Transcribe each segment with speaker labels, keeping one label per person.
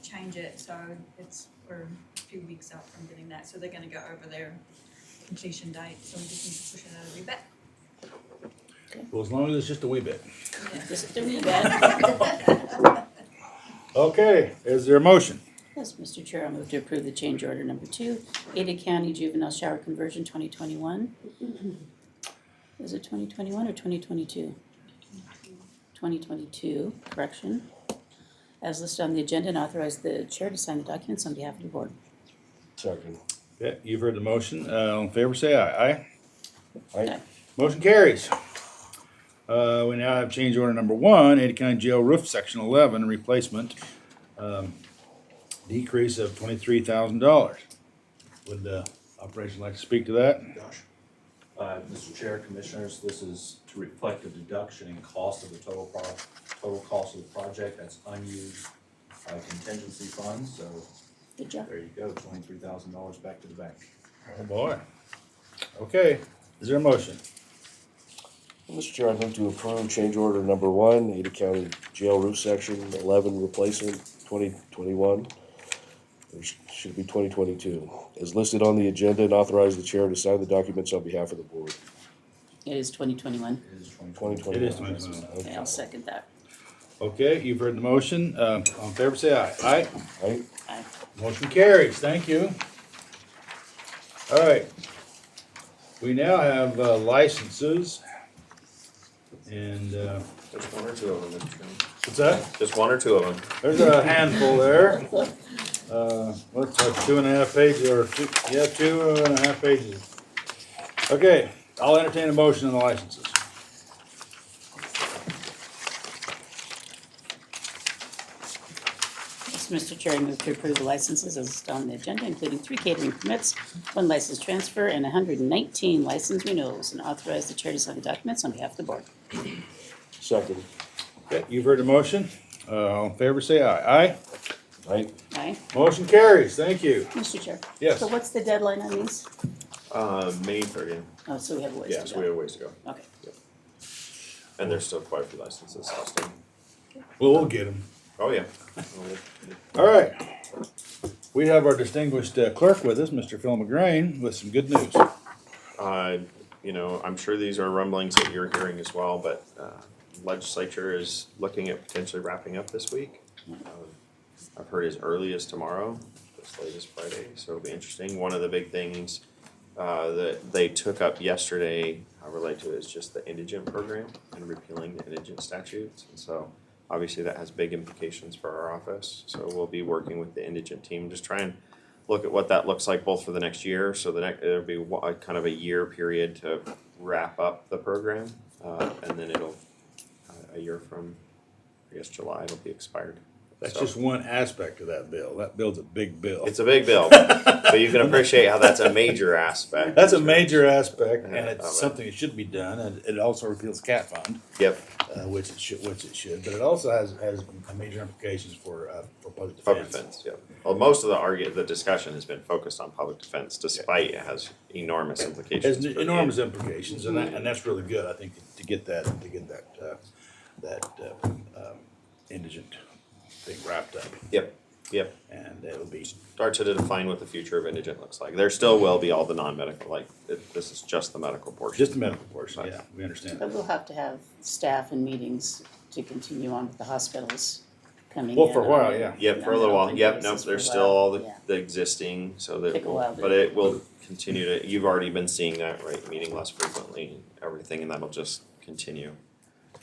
Speaker 1: change it, so it's, we're a few weeks out from getting that, so they're gonna go over their completion date, so we just need to push it out a wee bit.
Speaker 2: Well, as long as it's just a wee bit.
Speaker 3: Just a wee bit.
Speaker 2: Okay, is there a motion?
Speaker 3: Yes, Mr. Chair, I move to approve the change order number two, Ada County Juvenile Shower Conversion twenty twenty-one. Is it twenty twenty-one or twenty twenty-two? Twenty twenty-two, correction. As listed on the agenda and authorize the chair to sign the documents on behalf of the board.
Speaker 4: Second.
Speaker 2: Okay, you've heard the motion, uh, all in favor, say aye, aye?
Speaker 4: Aye.
Speaker 2: Motion carries. Uh, we now have change order number one, Ada County Jail Roof Section eleven replacement, um, decrease of twenty-three thousand dollars. Would the operation like to speak to that?
Speaker 5: Uh, Mr. Chair, Commissioners, this is to reflect a deduction in cost of the total pro, total cost of the project, that's unused uh, contingency funds, so
Speaker 3: Good job.
Speaker 5: there you go, twenty-three thousand dollars back to the bank.
Speaker 2: Oh, boy. Okay, is there a motion?
Speaker 4: Mr. Chair, I'd like to approve change order number one, Ada County Jail Roof Section eleven replacement twenty twenty-one. There sh- should be twenty twenty-two, as listed on the agenda and authorize the chair to sign the documents on behalf of the board.
Speaker 3: It is twenty twenty-one.
Speaker 5: It is twenty
Speaker 4: Twenty
Speaker 5: twenty.
Speaker 4: twenty-one.
Speaker 2: It is 2021.
Speaker 3: Okay, I'll second that.
Speaker 2: Okay, you've heard the motion, uh, all in favor, say aye, aye?
Speaker 4: Right?
Speaker 3: Aye.
Speaker 2: Motion carries, thank you. All right. We now have uh, licenses. And, uh,
Speaker 6: Just one or two of them, Mr. Chairman.
Speaker 2: what's that?
Speaker 6: Just one or two of them.
Speaker 2: There's a handful there. Uh, what's that, two and a half pages, or two, yeah, two and a half pages. Okay, I'll entertain a motion on the licenses.
Speaker 3: Yes, Mr. Chair, I move to approve the licenses as listed on the agenda, including three catering permits, one license transfer, and hundred and nineteen license renewals, and authorize the chair to sign the documents on behalf of the board.
Speaker 4: Second,
Speaker 2: Okay, you've heard the motion. Uh, all in favor, say aye. Aye?
Speaker 4: right?
Speaker 3: Aye.
Speaker 2: Motion carries, thank you.
Speaker 3: Mr. Chair?
Speaker 2: Yes.
Speaker 3: So what's the deadline on these?
Speaker 6: Uh, May thirtieth.
Speaker 3: Oh, so we have a ways to go.
Speaker 6: Yes, we have a ways to go.
Speaker 3: Okay.
Speaker 6: And there's still quite a few licenses outstanding.
Speaker 2: Well, we'll get them.
Speaker 6: Oh, yeah.
Speaker 2: All right. We have our distinguished uh, clerk with us, Mr. Phil McGrain, with some good news.
Speaker 6: Uh, you know, I'm sure these are rumblings that you're hearing as well, but, uh, legislature is looking at potentially wrapping up this week. Um, I've heard as early as tomorrow, as late as Friday, so it'll be interesting. One of the big things, uh, that they took up yesterday, I relate to it, is just the indigent program and repealing the indigent statutes. And so, obviously, that has big implications for our office, so we'll be working with the indigent team, just try and look at what that looks like both for the next year, so the next, it'll be wa- a kind of a year period to wrap up the program. Uh, and then it'll, uh, a year from, I guess, July, it'll be expired.
Speaker 2: That's
Speaker 6: So-
Speaker 2: just one aspect of that bill. That bill's a big bill.
Speaker 6: It's a big bill, but you can appreciate how that's a major aspect.
Speaker 2: That's a major aspect, and
Speaker 6: Yeah,
Speaker 2: it's
Speaker 6: I bet.
Speaker 2: something that should be done. And it also repeals cat fund,
Speaker 6: Yep,
Speaker 2: uh, which it should, which it should. But it also has has major implications for uh, for public defense.
Speaker 6: public defense, yep. Well, most of the argu, the discussion has been focused on public defense, despite it has enormous implications.
Speaker 2: Has
Speaker 6: for the-
Speaker 2: enormous implications, and that, and that's really good. I think to get that to get that uh, that uh, um, indigent thing wrapped up,
Speaker 6: Yep, yep.
Speaker 2: and it'll be
Speaker 6: Start to define what the future of indigent looks like. There still will be all the non-medical, like, it- this is just the medical portion.
Speaker 2: just a medical portion. Yeah, we understand.
Speaker 3: But we'll have to have staff and meetings to continue on with the hospitals coming in.
Speaker 2: Well, for a
Speaker 3: on-
Speaker 2: while, yeah.
Speaker 6: Yep, for a
Speaker 3: on
Speaker 6: little
Speaker 3: an
Speaker 6: while,
Speaker 3: open
Speaker 6: yep, nope,
Speaker 3: basis for a
Speaker 6: there's
Speaker 3: while.
Speaker 6: still all the,
Speaker 3: Yeah.
Speaker 6: the existing, so that,
Speaker 3: Take a
Speaker 6: will-
Speaker 3: while to-
Speaker 6: but it will continue to, you've already been seeing that, right, meeting less frequently, and everything, and that'll just continue.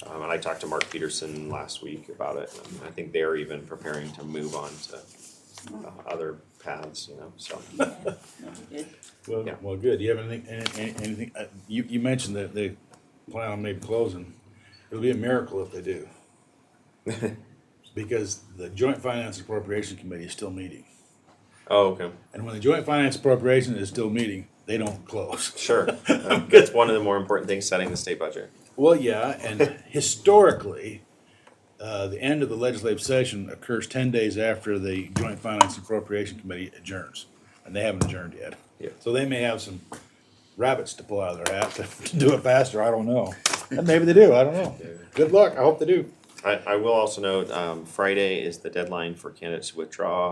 Speaker 6: Um, and I talked to Mark Peterson last week about it, and I think they're even preparing to move on to uh, other paths, you know, so.
Speaker 3: That'd be good.
Speaker 2: Well,
Speaker 6: Yeah.
Speaker 2: well, good. Do you have anything, any- any- anything, uh, you, you mentioned that they plan on maybe closing. It'll be a miracle if they do. Because the Joint Finance Appropriation Committee is still meeting.
Speaker 6: Oh, okay,
Speaker 2: And when the Joint Finance Appropriation is still meeting, they don't close.
Speaker 6: sure, Um, that's one of the more important things, setting the state budget.
Speaker 2: Well, yeah, and historically, uh, the end of the legislative session occurs ten days after the Joint Finance Appropriation Committee adjourns. And they haven't adjourned yet.
Speaker 6: Yeah.
Speaker 2: So they may have some rabbits to pull out of their hat to do it faster, I don't know. And maybe they do, I don't know. Good luck, I hope they do.
Speaker 6: I, I will also note, um, Friday is the deadline for candidates to withdraw